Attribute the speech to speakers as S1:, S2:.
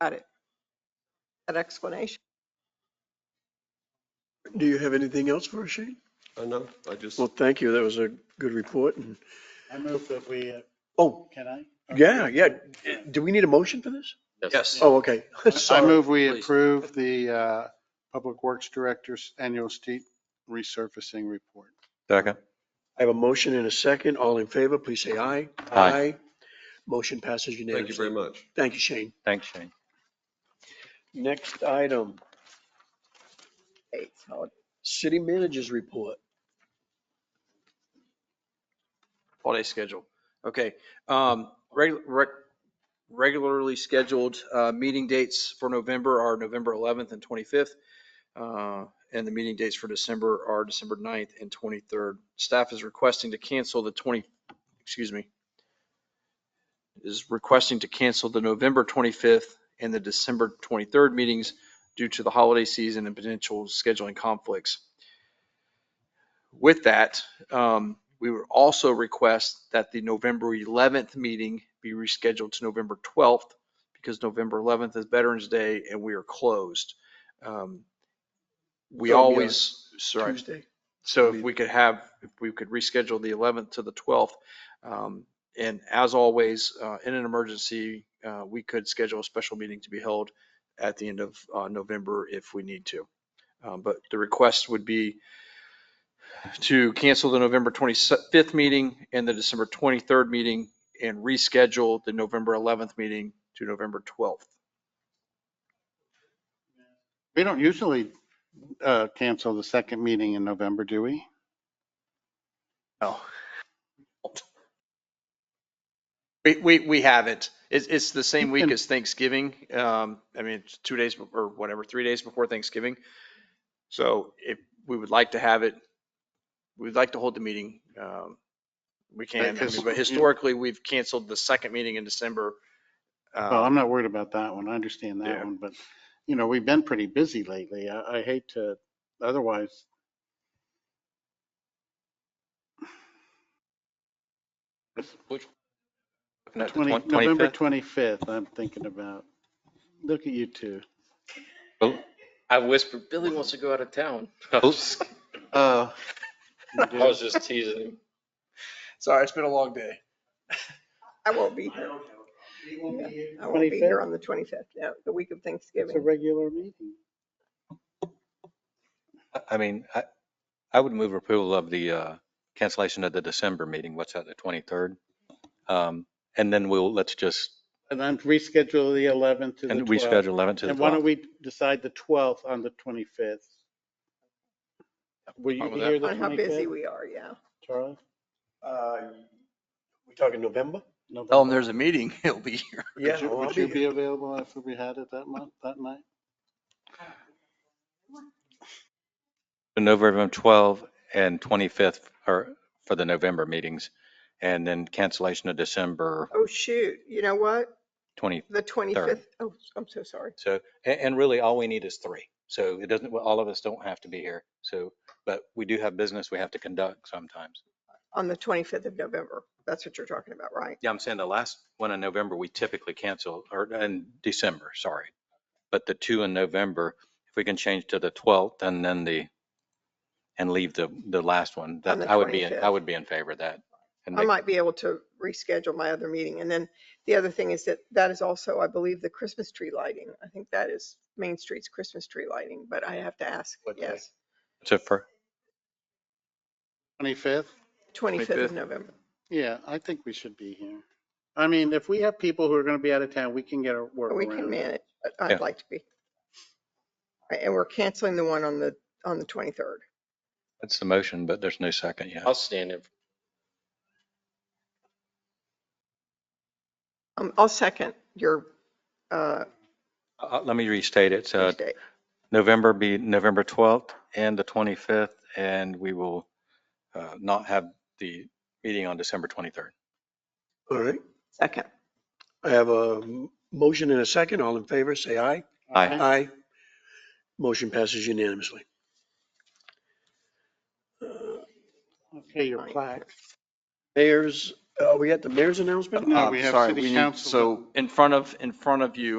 S1: Got it. That explanation.
S2: Do you have anything else for us, Shane?
S3: I know, I just,
S2: Well, thank you. That was a good report. And,
S4: I move that we, uh,
S2: oh,
S4: can I?
S2: yeah, yeah. Do we need a motion for this?
S3: yes,
S2: Oh, okay.
S4: I
S2: Sorry.
S4: move we
S3: Please.
S4: approve the uh, Public Works Director's annual street resurfacing report.
S5: Second.
S2: I have a motion and a second. All in favor, please say aye.
S5: Aye.
S2: Motion passes
S3: thank you very
S2: unanimously.
S3: much.
S2: Thank you, Shane.
S5: Thanks, Shane.
S2: Next item,
S1: Hey, so
S2: city managers report.
S6: holiday schedule. Okay, um, reg- reg- regularly scheduled, uh, meeting dates for November are November 11th and 25th. Uh, and the meeting dates for December are December 9th and 23rd. Staff is requesting to cancel the 20, excuse me, is requesting to cancel the November 25th and the December 23rd meetings due to the holiday season and potential scheduling conflicts. With that, um, we would also request that the November 11th meeting be rescheduled to November 12th because November 11th is Veterans Day and we are closed. Um, We
S2: So it'll be our
S6: always, sorry.
S2: Tuesday.
S6: So if we could have, if we could reschedule the 11th to the 12th. um, And as always, uh, in an emergency, uh, we could schedule a special meeting to be held at the end of uh, November if we need to. Um, But the request would be to cancel the November 25th meeting and the December 23rd meeting and reschedule the November 11th meeting to November 12th.
S4: We don't usually uh, cancel the second meeting in November, do we?
S6: Oh. We, we, we have it. It's, it's the same week
S4: And-
S6: as Thanksgiving. Um, I mean, it's two days be- or whatever, three days before Thanksgiving. So if we would like to have it, we'd like to hold the meeting. Um, we can, I
S4: Because-
S6: mean, but historically, we've canceled the second meeting in December.
S4: Well, I'm
S6: Um,
S4: not worried about that one. I understand that
S6: Yeah.
S4: one, but, you know, we've been pretty busy lately. I I hate to, otherwise,
S6: looking at Uh, the
S4: 20
S6: twen-
S4: November
S6: 25th.
S4: 25th, I'm thinking about. Look at you two.
S7: I whispered, Billy wants to go out of town.
S3: Oops.
S6: Uh,
S4: Oh.
S7: I was just teasing him.
S6: Sorry, it's been a long day.
S1: I won't be here. Yeah, I won't be
S4: 25th?
S1: here on the 25th, yeah, the week of
S4: It's a
S1: Thanksgiving.
S4: regular meeting.
S5: I- I mean, I, I would move approval of the uh, cancellation of the December meeting. What's that, the 23rd? Um, And then we'll, let's just,
S4: And then reschedule the 11th to the
S5: and
S4: 12th.
S5: reschedule 11th to the
S4: And why don't
S5: 12th.
S4: we decide the 12th on the 25th? Will you
S6: Fine
S4: be
S6: with
S4: here the
S1: On how busy
S4: 25th,
S1: we are, yeah.
S4: Charlie?
S2: Uh, We talking November?
S6: Tell them there's a meeting, he'll be here.
S2: Yeah.
S4: Would you-
S2: well, I'll
S4: would you
S2: be
S4: be
S2: here.
S4: available if we had it that month, that night?
S5: The November 12th and 25th are for the November meetings. And then cancellation of December
S1: Oh, shoot, you know what?
S5: 20.
S1: The 25th, oh, I'm so sorry.
S5: So, and, and really all we need is three. So it doesn't, well, all of us don't have to be here. So, but we do have business we have to conduct sometimes.
S1: On the 25th of November, that's what you're talking about, right?
S5: Yeah, I'm saying the last one in November, we typically cancel, or in December, sorry. But the two in November, if we can change to the 12th and then the, and leave the, the last one,
S1: On
S5: that
S1: the
S5: I would be, in-
S1: 25th.
S5: I would be in favor of that. And
S1: I
S5: make-
S1: might be able to reschedule my other meeting. And then the other thing is that that is also, I believe, the Christmas tree lighting. I think that is Main Street's Christmas tree lighting, but I have to ask,
S2: What day?
S1: yes,
S5: So for,
S4: 25th?
S1: 25th
S6: 25th.
S1: of November.
S4: Yeah, I think we should be here. I mean, if we have people who are going to be out of town, we can get a work
S1: But We can
S4: around it.
S1: manage, but
S5: Yeah.
S1: I'd like to be. Right, And we're canceling the one on the, on the 23rd.
S5: that's the motion, but there's no second yet.
S7: I'll stand in.
S1: Um, I'll second your, uh,
S5: Uh, Let me restate it. So
S1: date.
S5: November be November 12th and the 25th, and we will uh, not have the meeting on December 23rd.
S2: All right.
S1: Second.
S2: I have a m- motion and a second. All in favor, say aye.
S5: Aye.
S2: Aye. Motion passes unanimously. Uh,
S4: Okay, your plaque.
S2: Mayor's, are we at the mayor's announcement?
S4: No,
S6: Uh,
S4: we have
S6: sorry,
S4: city
S6: we need-
S4: council.
S6: So in front of, in front of you,